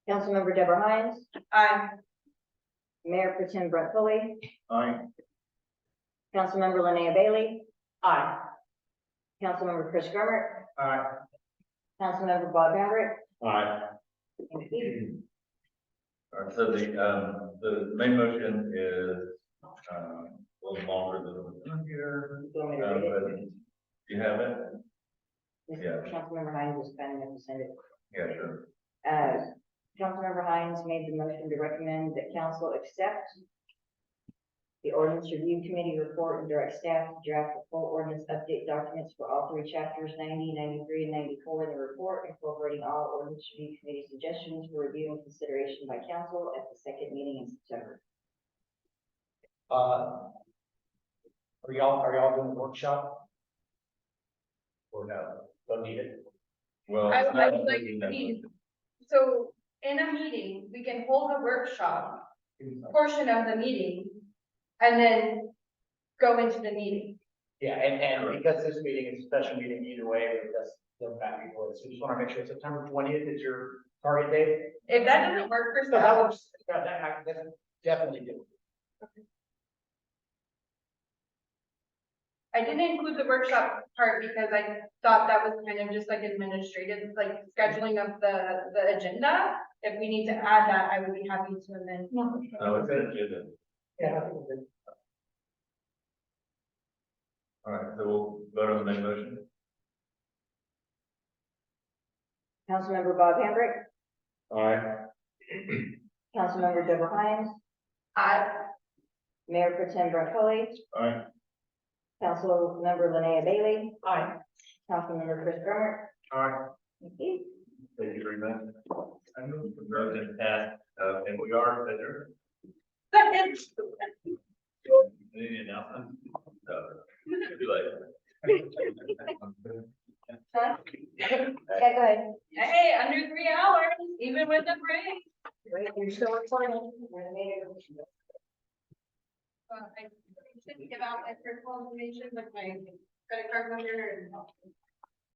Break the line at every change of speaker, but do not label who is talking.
Councilmember Deborah Hines,
Aye.
Mayor Pro Tem Brett Foley,
Aye.
Councilmember Linnea Bailey,
Aye.
Councilmember Chris Grummer,
Aye.
Councilmember Bob Maverick,
Aye.
and Keith.
All right, so the, um, the main motion is, um, a little longer than the one here.
Do you want me to
Uh,
read it?
but You have it?
This-
yeah.
Councilmember Hines is kind enough to send it.
Yeah, sure.
Uh, Councilmember Hines made the motion to recommend that council accept the ordinance review committee report and direct staff to draft the full ordinance update documents for all three chapters 90, 93, and ninety-four in the report, incorporating all ordinance review committee suggestions for review and consideration by council at the second meeting in September.
Uh. Are y'all, are y'all doing a workshop? Or no, don't need it?
Well.
I-
it's
I would
not-
like to see- So in a meeting, we can hold a workshop portion of the meeting and then go into the meeting.
Yeah, and, and because this meeting is a special meeting either way, that's the back and forth, so just wanna make sure September twentieth is your target date.
If that doesn't work for
So that
staff,
works, that, that, I- that's definitely do.
I didn't include the workshop part because I thought that was kind of just like administrative, like scheduling of the, the agenda. If we need to add that, I would be happy to amend.
No, it's an agenda.
Yeah. I think we're good.
All right, so we'll vote on the main motion.
Councilmember Bob Hambrick,
Aye.
Councilmember Deborah Hines,
I,
Mayor Pro Tem Brett Foley,
Aye.
Councilmember Linnea Bailey,
Aye.
Councilmember Chris Grummer,
Aye.
and Keith.
Thank you very much. I move to vote and pass, uh, and we are adjourned.
second,
Any announcement? No. Too late.
Huh? Yeah, go ahead.
hey, under three hours, even with the break.
Wait, you're still recording. We're in the meeting.
Well, I should give out my personal information, like my credit card number and